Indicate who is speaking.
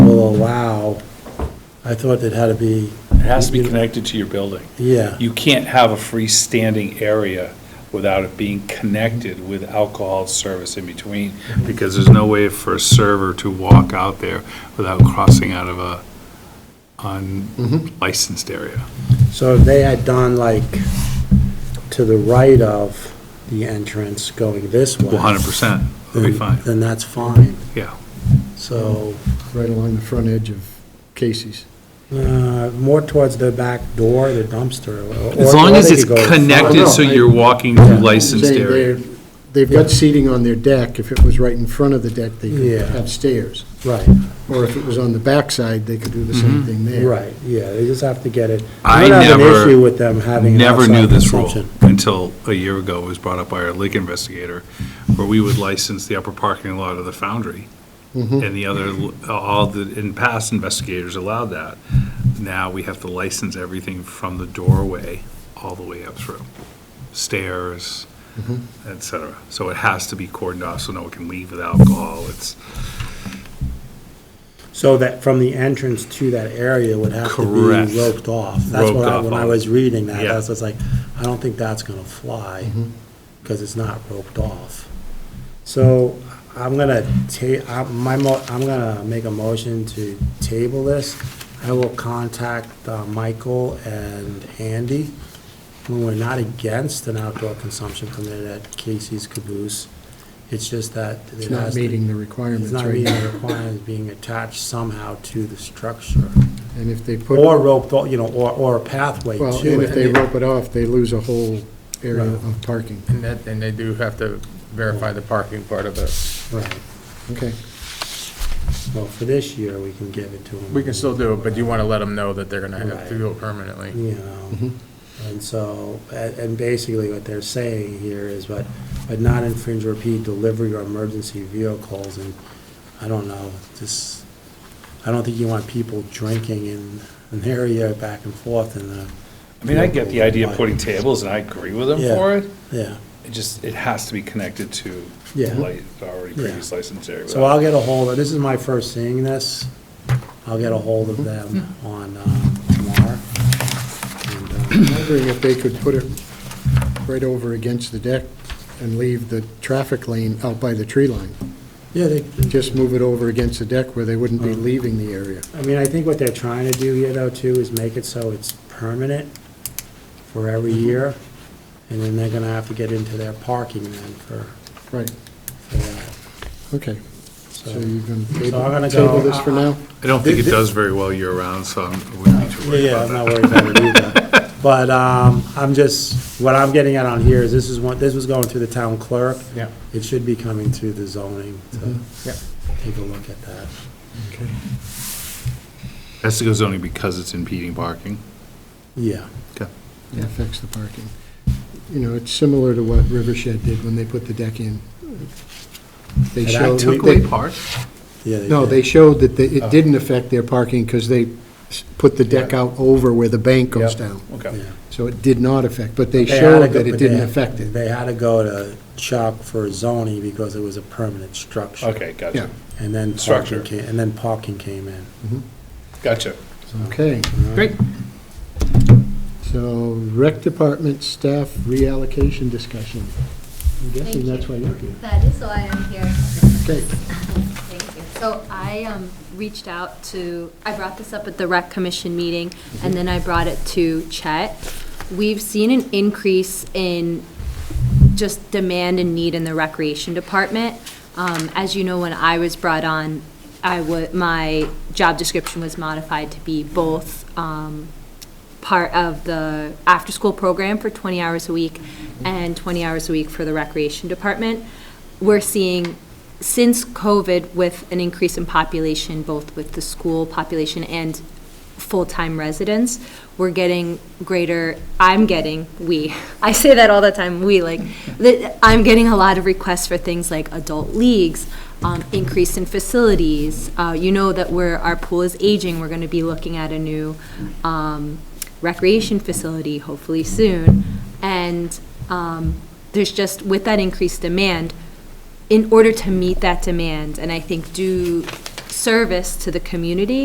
Speaker 1: Oh, I thought it had to be.
Speaker 2: It has to be connected to your building.
Speaker 1: Yeah,
Speaker 2: You can't have a freestanding area without it being connected with alcohol service in between, because there's no way for a server to walk out there without crossing out of a unlicensed area.
Speaker 1: so if they had done like to the right of the entrance going this way.
Speaker 2: 100%, it'll be
Speaker 1: then-
Speaker 2: fine,
Speaker 1: Then that's fine.
Speaker 2: yeah.
Speaker 1: So,
Speaker 3: right along the front edge of Casey's.
Speaker 1: uh, more towards the back door, the dumpster. or-
Speaker 2: As
Speaker 1: or
Speaker 2: long as
Speaker 1: they
Speaker 2: it's
Speaker 1: could go-
Speaker 2: connected, so
Speaker 3: I-
Speaker 2: you're walking through licensed
Speaker 3: Saying
Speaker 2: area.
Speaker 3: they're- They've got seating on their deck. If it was right in front of the deck, they could
Speaker 1: Yeah.
Speaker 3: have stairs.
Speaker 1: Right,
Speaker 3: Or if it was on the backside, they could do the same thing there.
Speaker 1: Mm-hmm. right, yeah, they just have to get it.
Speaker 2: I
Speaker 1: don't have an
Speaker 2: never-
Speaker 1: Issue with them having. an
Speaker 2: Never knew
Speaker 1: outside
Speaker 2: this rule
Speaker 1: consumption.
Speaker 2: until a year ago, it was brought up by our lake investigator, where we would license the upper parking lot of the foundry.
Speaker 1: Mm-hmm.
Speaker 2: And the other, all the, in past investigators allowed that. Now we have to license everything from the doorway all the way up through, stairs,
Speaker 1: Mm-hmm.
Speaker 2: et cetera. So it has to be cordoned off so no one can leave with alcohol. It's
Speaker 1: So that from the entrance to that area would have to
Speaker 2: Correct.
Speaker 1: be roped off. That's what I,
Speaker 2: Roped off
Speaker 1: when I
Speaker 2: on-
Speaker 1: was reading that,
Speaker 2: Yeah.
Speaker 1: I was just like, I don't think that's gonna fly,
Speaker 3: Mm-hmm.
Speaker 1: because it's not roped off. So I'm gonna ta, I'm, my mo, I'm gonna make a motion to table this. I will contact uh, Michael and Andy. When we're not against an outdoor consumption permit at Casey's Caboose, it's just that. it
Speaker 3: It's not
Speaker 1: has to-
Speaker 3: meeting the
Speaker 1: it's
Speaker 3: requirements
Speaker 1: not
Speaker 3: right
Speaker 1: meeting
Speaker 3: now.
Speaker 1: the requirements being attached somehow to the structure,
Speaker 3: And if they put,
Speaker 1: or
Speaker 3: well,
Speaker 1: roped, you know, or, or a pathway to it.
Speaker 3: and if they rope it off, they lose a whole area
Speaker 1: Right.
Speaker 3: of parking.
Speaker 4: And that, and they do have to verify the parking part of it.
Speaker 1: Right,
Speaker 3: Okay.
Speaker 1: well, for this year, we can give it to them.
Speaker 4: We can still do it, but you want to let them know that they're going to have to
Speaker 1: Right.
Speaker 4: do it permanently.
Speaker 1: You
Speaker 3: Mm-hmm.
Speaker 1: know, and so, and, and basically what they're saying here is, but, but not infringe or impede delivery or emergency vehicles, and I don't know, just, I don't think you want people drinking in an area back and forth in the,
Speaker 2: I mean, I get the idea of putting tables, and I agree with them
Speaker 1: Yeah.
Speaker 2: for it.
Speaker 1: yeah.
Speaker 2: It just, it has to be connected to
Speaker 1: Yeah.
Speaker 2: light, already
Speaker 1: Yeah.
Speaker 2: previous license area.
Speaker 1: So I'll get a hold of, this is my first seeing this, I'll get a hold of them on uh, tomorrow. And, uh,
Speaker 3: I'm wondering if they could put it right over against the deck and leave the traffic lane out by the tree line.
Speaker 1: Yeah, they,
Speaker 3: Just move it over against the deck where they wouldn't
Speaker 1: Oh.
Speaker 3: be leaving the area.
Speaker 1: I mean, I think what they're trying to do here though too is make it so it's permanent for every year, and then they're gonna have to get into their parking then for,
Speaker 3: Right,
Speaker 1: for that,
Speaker 3: okay. So
Speaker 1: so.
Speaker 3: you're going to
Speaker 1: So I'm gonna
Speaker 3: table table
Speaker 1: go- uh,
Speaker 3: this for now?
Speaker 2: I don't think it does very well year-round, so I wouldn't need to worry
Speaker 1: Yeah, I'm
Speaker 2: about that.
Speaker 1: not worried about it either. But um, I'm just, what I'm getting at on here is this is one, this was going through the town clerk.
Speaker 4: Yeah.
Speaker 1: It should be coming through the zoning to
Speaker 2: Mm-hmm.
Speaker 4: Yeah.
Speaker 1: take a look at that.
Speaker 2: Has to go zoning because it's impeding parking.
Speaker 1: Yeah,
Speaker 2: Okay.
Speaker 3: It affects the parking. You know, it's similar to what Rivershed did when they put the deck in. They
Speaker 1: And I
Speaker 3: showed,
Speaker 1: took Oh.
Speaker 3: they-
Speaker 2: park?
Speaker 1: yeah.
Speaker 3: no,
Speaker 1: did.
Speaker 3: they showed that they- it didn't affect their parking because they s- put the deck out over where the bank goes
Speaker 4: Yep.
Speaker 3: down.
Speaker 2: Okay.
Speaker 1: Yeah.
Speaker 3: So it did not affect, but they
Speaker 1: They had to go-
Speaker 3: showed that it
Speaker 1: but they-
Speaker 3: didn't affect it.
Speaker 1: They had to go to CHOP for zoning because it was a permanent structure.
Speaker 2: Okay,
Speaker 3: Yeah,
Speaker 2: gotcha,
Speaker 1: And then
Speaker 2: Structure.
Speaker 1: parking came, and then parking came in.
Speaker 2: gotcha.
Speaker 3: okay.
Speaker 2: Great.
Speaker 3: So rec department staff reallocation discussion. I'm guessing
Speaker 5: Thank
Speaker 3: that's
Speaker 5: you.
Speaker 3: why you're here.
Speaker 5: That is why I'm here.
Speaker 3: Okay.
Speaker 5: Thank you. So I um, reached out to, I brought this up at the rec commission meeting, and then I brought it to Chet. We've seen an increase in just demand and need in the recreation department. Um, As you know, when I was brought on, I wa, my job description was modified to be both um, part of the after-school program for 20 hours a week and 20 hours a week for the recreation department. We're seeing, since COVID, with an increase in population, both with the school population and full-time residents, we're getting greater, I'm getting, we, I say that all the time, we, like, that I'm getting a lot of requests for things like adult leagues, um, increase in facilities. Uh, You know that where our pool is aging, we're going to be looking at a new um, recreation facility, hopefully soon. And um, there's just, with that increased demand, in order to meet that demand, and I think do service to the community,